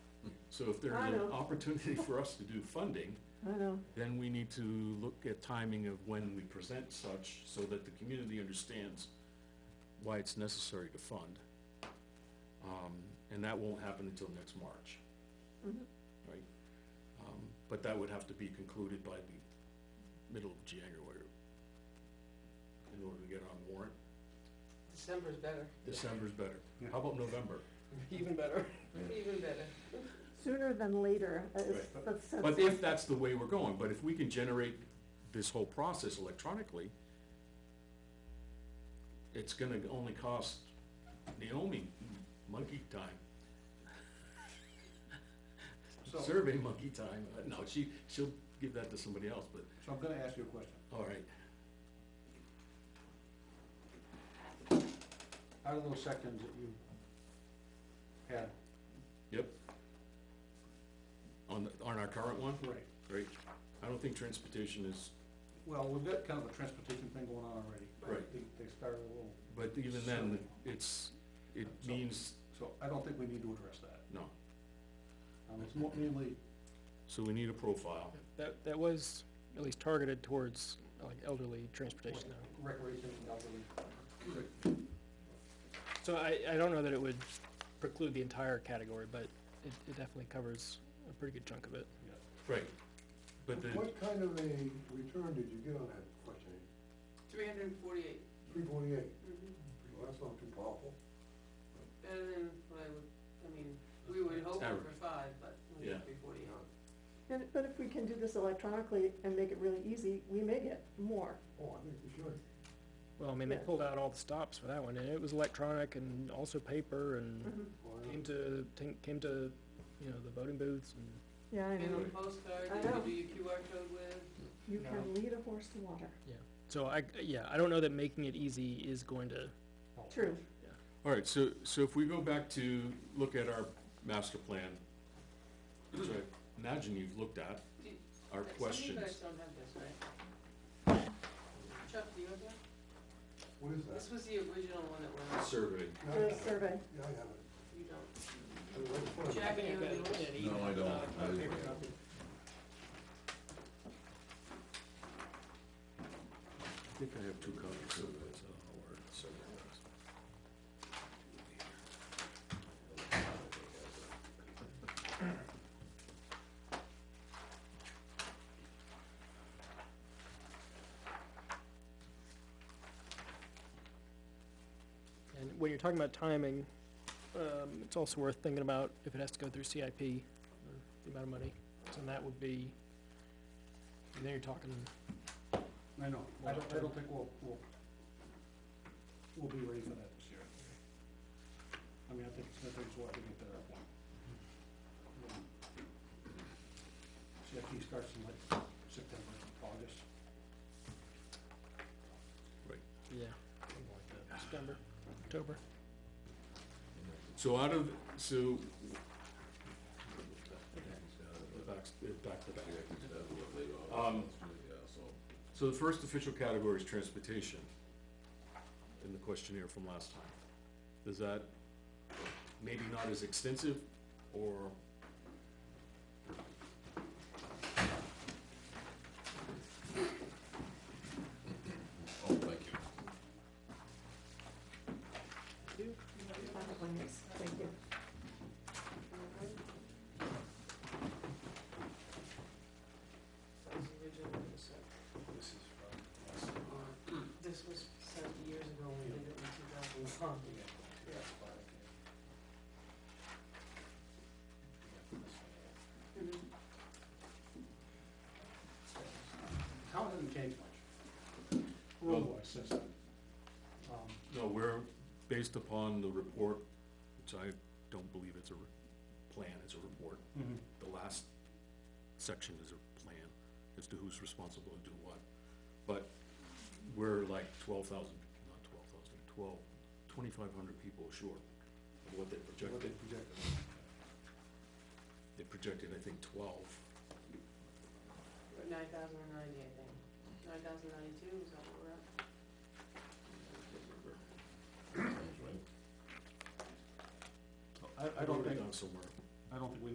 So if there's I an know. opportunity for us to do funding, I know. then we need to look at timing of when we present such, so that the community understands why it's necessary to fund. Um, and that won't happen until next March. Mm-hmm. Right? Um, but that would have to be concluded by the middle of January in order to get on warrant. December's better, December's better. How about November? Even better. even better. sooner than later, uh, is- Right. that's, But that's, if that's the way we're going, but if we can generate this whole process electronically, it's gonna only cost Naomi monkey time, So, so survey monkey time. Uh, No, she, she'll give that to somebody else, but, I'm gonna ask you a question. all right. Out of those seconds that you had. Yep. On, the- on our current one, Right. right? I don't think transportation is, Well, we've got kind of a transportation thing going on already. Right. They, they started a little, but even then, it's, it means, so I don't think we need to address that. no. Um, it's more mainly, So we need a profile. That, that was at least targeted towards like elderly transportation though. recreation and elderly. So I, I don't know that it would preclude the entire category, but it, it definitely covers a pretty good chunk of it. Right. But the, What kind of a return did you get on that question? Three hundred and forty-eight, mm-hmm, Three forty-eight, well, that's not too powerful. better than what I would, I mean, we would hope for Average. five, but we Yeah. got three forty-eight. and- but if we can do this electronically and make it really easy, we may get more. Oh, I think we should. Well, I mean, they Yeah. pulled out all the stops for that one and it was electronic and also paper Mm-hmm. and Mhm. Why came not? to, tin- came to, you know, the voting booths and Yeah, I And know, a postcard I that you know. could do your QR code with, you No. can lead a horse to water, so I, yeah, I don't know that making it easy is going to, Oh, true, All right, so, so if we go back to look at our master plan, which I imagine you've looked at, Do- our Like, some of you guys questions. don't have this, right? Chuck, do you have that? What is that? This was the original one that went out, Survey. Yeah, I have the it. survey. Yeah, I have you don't. it. Right in front of me. Jack, you have yours? Uh, No, I don't. I- I think I have two copies of it, so I'll order the survey. and when you're talking about timing, um, it's also worth thinking about if it has to go through CIP, or uh, the amount of money. So that would be, and then you're talking I know, I don't, I don't think we'll, we'll, we'll be ready for that this year. I mean, I think it's gonna take us a while to get to that point. CFP starts in like September, August, Yeah, something like that. September, October. So out of, so. Back, back to back. Um, So the first official category is transportation in the questionnaire from last time. Does that, maybe not as extensive, or? Oh, thank you. I have one yes, thank you. That was the original one that was sent. This was sent years ago, when we did it in two thousand and one. Mm-hmm. Town hasn't changed much, road-wise since then. Um, No, we're, based upon the report, which I don't believe it's a re- plan, it's a report. Mm-hmm. The last section is a plan as to who's responsible to do what. But we're like twelve thousand, not twelve thousand, twelve, twenty-five hundred people short of what they What they projected. projected. They projected, I think, twelve. Nine thousand and ninety, I think. Nine thousand ninety-two, is that what we're at? Sounds right. I, I don't Wrote it think, down somewhere. I don't think we